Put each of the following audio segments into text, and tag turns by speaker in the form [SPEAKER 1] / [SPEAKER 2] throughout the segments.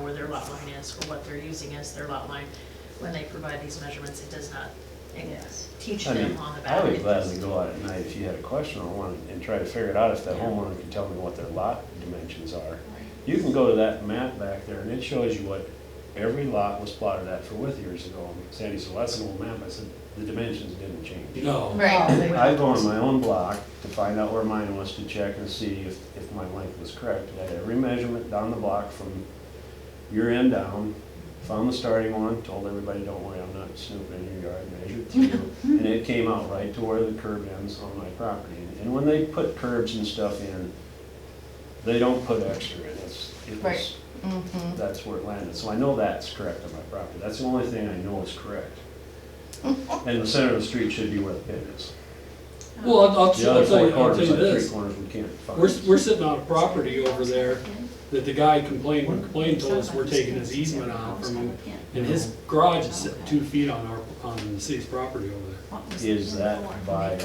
[SPEAKER 1] where their lot line is or what they're using as their lot line. When they provide these measurements, it does not eh,
[SPEAKER 2] Yes.
[SPEAKER 1] teach
[SPEAKER 3] I mean,
[SPEAKER 1] them on the back.
[SPEAKER 3] I would gladly go out at night if you had a question or one and try to figure it out if that homeowner can tell me what their lot dimensions are. You can go to that map back there and it shows you what every lot was plotted at for width years ago. And Sandy said, "Well, that's an old map. I said, the dimensions didn't change.
[SPEAKER 4] No.
[SPEAKER 3] I go on my own block to find out where mine was to check and see if, if my length was correct. I had every measurement down the block from your end down, found the starting one, told everybody, don't worry, I'm not snooping in your yard, measured through. And it came out right to where the curb ends on my property. And when they put curbs and stuff in, they don't put extra in, it's, it
[SPEAKER 2] Right.
[SPEAKER 3] was, that's where it landed. So I know that's correct on my property, that's the only thing I know is correct. And the center of the street should be where the pit is.
[SPEAKER 4] Well, I'll, I'll I'll
[SPEAKER 3] The other four
[SPEAKER 4] tell you, I'll tell
[SPEAKER 3] corners,
[SPEAKER 4] you
[SPEAKER 3] like three
[SPEAKER 4] this,
[SPEAKER 3] corners, we can't find.
[SPEAKER 4] we're, we're sitting on a property over there that the guy complained, complained to us, we're taking his easement out from him. And his garage is sitting two feet on our, on the city's property over there.
[SPEAKER 3] Is that by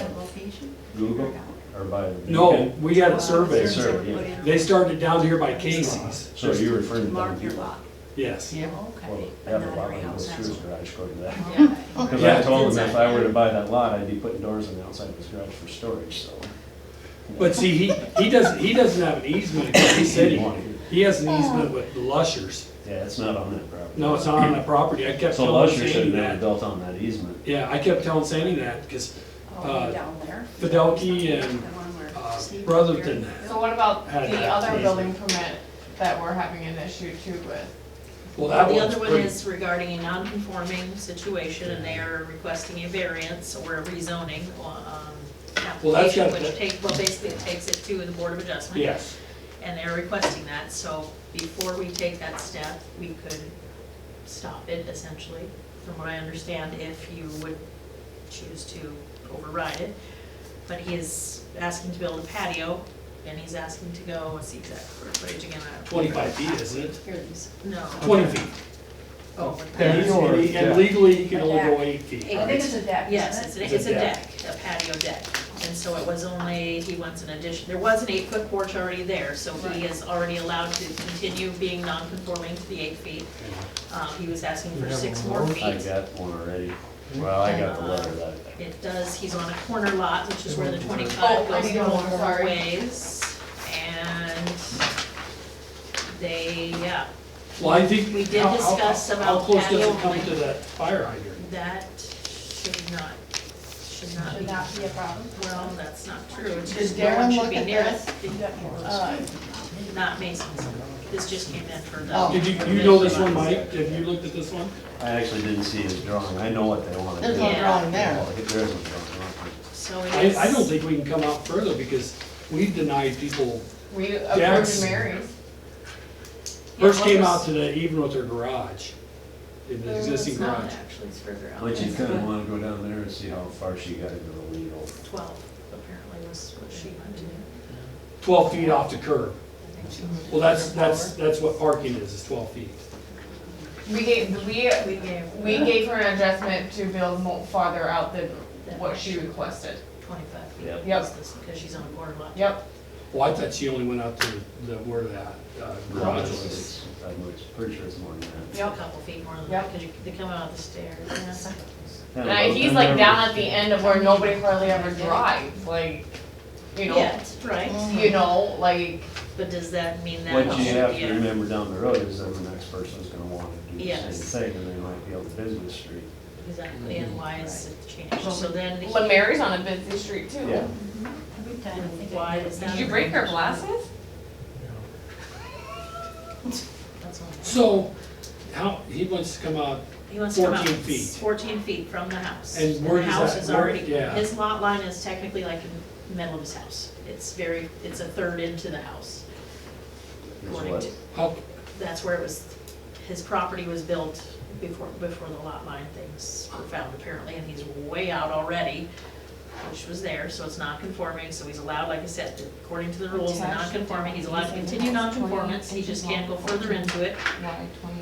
[SPEAKER 3] Google or by. the-
[SPEAKER 4] No, we had it surveyed.
[SPEAKER 3] Survey.
[SPEAKER 4] They started down here by Casey's.
[SPEAKER 3] So you refer to them
[SPEAKER 5] Mark your
[SPEAKER 3] people?
[SPEAKER 5] lot.
[SPEAKER 4] Yes.
[SPEAKER 1] Yeah.
[SPEAKER 5] Okay.
[SPEAKER 3] Well, I have a
[SPEAKER 5] Not
[SPEAKER 3] lot
[SPEAKER 5] every
[SPEAKER 3] of
[SPEAKER 5] house
[SPEAKER 3] those
[SPEAKER 5] has
[SPEAKER 3] through his
[SPEAKER 5] one.
[SPEAKER 3] garage according to that.
[SPEAKER 5] Yeah.
[SPEAKER 3] Cause
[SPEAKER 4] Yeah,
[SPEAKER 3] I
[SPEAKER 4] it's
[SPEAKER 3] told him if I were to buy that lot, I'd be putting doors on the outside of his garage for storage, so.
[SPEAKER 4] But see, he, he doesn't, he doesn't have an easement, he said he, he has an easement with Lushers.
[SPEAKER 3] Yeah, it's not on that property.
[SPEAKER 4] No, it's not on that property, I kept
[SPEAKER 3] So
[SPEAKER 4] telling
[SPEAKER 3] Lusher
[SPEAKER 4] Sandy
[SPEAKER 3] should have
[SPEAKER 4] that.
[SPEAKER 3] built on that easement.
[SPEAKER 4] Yeah, I kept telling Sandy that, because
[SPEAKER 5] Oh,
[SPEAKER 4] Uh,
[SPEAKER 5] down there.
[SPEAKER 4] Fidelki and,
[SPEAKER 5] The one where
[SPEAKER 4] uh,
[SPEAKER 5] Steve-
[SPEAKER 4] Brotherton.
[SPEAKER 6] So what about
[SPEAKER 4] Had
[SPEAKER 6] the
[SPEAKER 4] that
[SPEAKER 6] other
[SPEAKER 4] reason.
[SPEAKER 6] building permit that we're having an issue too with?
[SPEAKER 4] well, that
[SPEAKER 1] The
[SPEAKER 4] one's
[SPEAKER 1] other one
[SPEAKER 4] pretty.
[SPEAKER 1] is regarding a non-conforming situation, and they are requesting a variance or a rezoning, um,
[SPEAKER 4] Well, that's
[SPEAKER 1] application,
[SPEAKER 4] got-
[SPEAKER 1] which take, well, basically it takes it to the Board of Adjustment.
[SPEAKER 4] Yes,
[SPEAKER 1] And they're requesting that, so before we take that step, we could stop it essentially, from what I understand, if you would choose to override it. But he is asking to build a patio, and he's asking to go, what's the exact footage again? I don't-
[SPEAKER 4] twenty-five feet, isn't it?
[SPEAKER 5] Here it is.
[SPEAKER 1] No.
[SPEAKER 4] Twenty feet.
[SPEAKER 1] Oh,
[SPEAKER 4] And he's- and he- and legally, he can only go eight feet.
[SPEAKER 2] I think it's a deck,
[SPEAKER 1] Yes, it's,
[SPEAKER 2] isn't it?
[SPEAKER 1] a- it's a deck, a patio deck, and so it was only, he wants an addition, there was an eight-foot porch already there, so he is already allowed to continue being non-conforming to the eight feet. Um, he was asking for six more
[SPEAKER 3] I
[SPEAKER 1] feet.
[SPEAKER 3] got one already. Well, I got the letter that.
[SPEAKER 1] It does, he's on a corner lot, which is where the
[SPEAKER 6] Oh,
[SPEAKER 1] twenty-five
[SPEAKER 6] I
[SPEAKER 1] goes
[SPEAKER 6] know,
[SPEAKER 1] no
[SPEAKER 6] I'm
[SPEAKER 1] more
[SPEAKER 6] sorry.
[SPEAKER 1] ways, and they, yeah,
[SPEAKER 4] Well, I think.
[SPEAKER 1] We did
[SPEAKER 4] how- how-
[SPEAKER 1] discuss
[SPEAKER 4] How
[SPEAKER 1] about
[SPEAKER 4] close does it
[SPEAKER 1] patio
[SPEAKER 4] come
[SPEAKER 1] only.
[SPEAKER 4] to that fire hydrant?
[SPEAKER 1] that should not, should not be,
[SPEAKER 2] Should not be a problem.
[SPEAKER 1] well, that's not true, it's
[SPEAKER 6] Did
[SPEAKER 1] just, no one
[SPEAKER 6] Darren
[SPEAKER 1] should
[SPEAKER 6] look
[SPEAKER 1] be
[SPEAKER 6] at
[SPEAKER 1] near
[SPEAKER 6] this?
[SPEAKER 1] it.
[SPEAKER 6] Uh,
[SPEAKER 1] Not Mason's, this just came in for
[SPEAKER 2] Oh.
[SPEAKER 1] the,
[SPEAKER 4] Did you, you know this one, Mike? Have you looked at this one?
[SPEAKER 3] I actually didn't see his drawing. I know what they wanted.
[SPEAKER 2] There's
[SPEAKER 3] to
[SPEAKER 2] no
[SPEAKER 3] do.
[SPEAKER 2] drawing there.
[SPEAKER 3] Well, There is no drawing. huh?
[SPEAKER 1] so it
[SPEAKER 4] I,
[SPEAKER 1] is.
[SPEAKER 4] I don't think we can come out further because we've denied people,
[SPEAKER 6] We
[SPEAKER 4] Yes.
[SPEAKER 6] approved Mary's.
[SPEAKER 4] first came out
[SPEAKER 1] to.
[SPEAKER 4] today, even with their garage, in the existing garage.
[SPEAKER 1] Actually, it's further out.
[SPEAKER 3] But you
[SPEAKER 1] It's
[SPEAKER 3] kinda
[SPEAKER 1] about
[SPEAKER 3] wanna go down there and see how far she got into the legal.
[SPEAKER 1] Twelve, apparently, was what she went to.
[SPEAKER 4] Twelve feet off the curb.
[SPEAKER 1] I think she went to
[SPEAKER 4] Well, that's, that's, that's what parking is, is twelve feet.
[SPEAKER 6] We gave, we,
[SPEAKER 1] We gave.
[SPEAKER 6] we gave her an adjustment to build more farther out than what she requested.
[SPEAKER 1] Twenty-five feet.
[SPEAKER 3] Yep.
[SPEAKER 6] Yep.
[SPEAKER 1] was this, Because she's on a corner lot.
[SPEAKER 6] Yep,
[SPEAKER 4] Well, I thought she only went out to the, where that uh, garage was.
[SPEAKER 3] It's- I'm pretty sure it's more than that.
[SPEAKER 1] A couple feet more than that, because you, they come out of the stairs, yeah.
[SPEAKER 6] and I- he's like down at the end of where nobody hardly ever drives, like, you know,
[SPEAKER 1] Yeah, right,
[SPEAKER 6] you know, like,
[SPEAKER 1] but does that mean that?
[SPEAKER 3] What
[SPEAKER 1] it
[SPEAKER 3] you
[SPEAKER 1] should
[SPEAKER 3] have
[SPEAKER 1] be
[SPEAKER 3] to
[SPEAKER 1] a-
[SPEAKER 3] remember down the road is that the next person's gonna wanna do the same
[SPEAKER 1] Yes.
[SPEAKER 3] thing, and they might be on the business street.
[SPEAKER 1] Exactly, and why is it changed, so then. he-
[SPEAKER 6] when Mary's on a busy street too.
[SPEAKER 3] Yeah.
[SPEAKER 2] Every time I think
[SPEAKER 1] Why
[SPEAKER 2] I
[SPEAKER 1] is that?
[SPEAKER 6] Did you break her glasses?
[SPEAKER 1] That's all.
[SPEAKER 4] So, how, he wants to come out,
[SPEAKER 1] He wants to come out
[SPEAKER 4] 14 feet.
[SPEAKER 1] Fourteen feet from the house.
[SPEAKER 4] And where does
[SPEAKER 1] The house
[SPEAKER 4] that-
[SPEAKER 1] is
[SPEAKER 4] where-
[SPEAKER 1] already,
[SPEAKER 4] yeah.
[SPEAKER 1] his lot line is technically like in the middle of his house. It's very, it's a third into the house.
[SPEAKER 3] Is
[SPEAKER 1] According
[SPEAKER 3] what-
[SPEAKER 1] to-
[SPEAKER 4] how,
[SPEAKER 1] That's where it was, his property was built before, before the lot line things were found apparently, and he's way out already, which was there, so it's not conforming, so he's allowed, like I said, according to the rules,
[SPEAKER 2] Attached
[SPEAKER 1] non conforming, he's allowed
[SPEAKER 2] to
[SPEAKER 1] to
[SPEAKER 2] the
[SPEAKER 1] continue
[SPEAKER 2] house, 20
[SPEAKER 1] non-conformance, he just can't go further into it.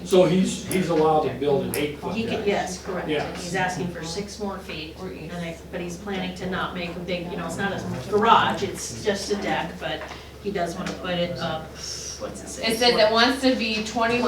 [SPEAKER 4] so he's, he's allowed to build an eight foot.
[SPEAKER 1] He could, yes, correct,
[SPEAKER 4] Yeah.
[SPEAKER 1] and he's asking for six more feet,
[SPEAKER 2] Or
[SPEAKER 1] and I, but he's planning to not make a big, you know, it's not a garage, it's just a deck, but he does wanna put it up, what's it say?
[SPEAKER 6] It said that wants to be twenty